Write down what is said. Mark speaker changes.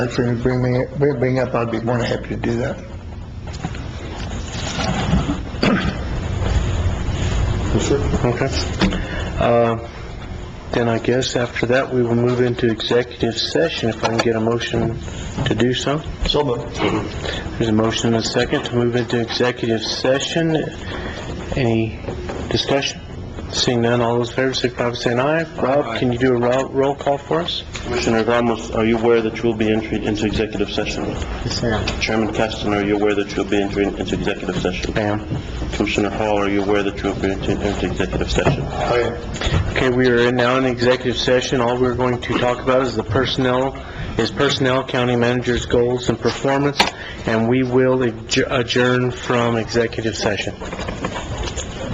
Speaker 1: If you bring me, bring bring up, I'd be more than happy to do that.
Speaker 2: Okay. Uh, Then I guess after that, we will move into executive session if I can get a motion to do so.
Speaker 1: So moved.
Speaker 2: There's a motion and a second to move into executive session. Any discussion? Seeing none, all those in favor, signify by saying aye. Rob, can you do a roll, roll call for us?
Speaker 3: Commissioner Ramos, are you aware that you will be entering into executive session?
Speaker 2: Yes, ma'am.
Speaker 3: Chairman Caston, are you aware that you'll be entering into executive session?
Speaker 2: Ma'am.
Speaker 3: Commissioner Hall, are you aware that you'll be entering into executive session?
Speaker 2: Okay, we are in now in executive session. All we're going to talk about is the personnel, is personnel, county manager's goals and performance, and we will adj- adjourn from executive session.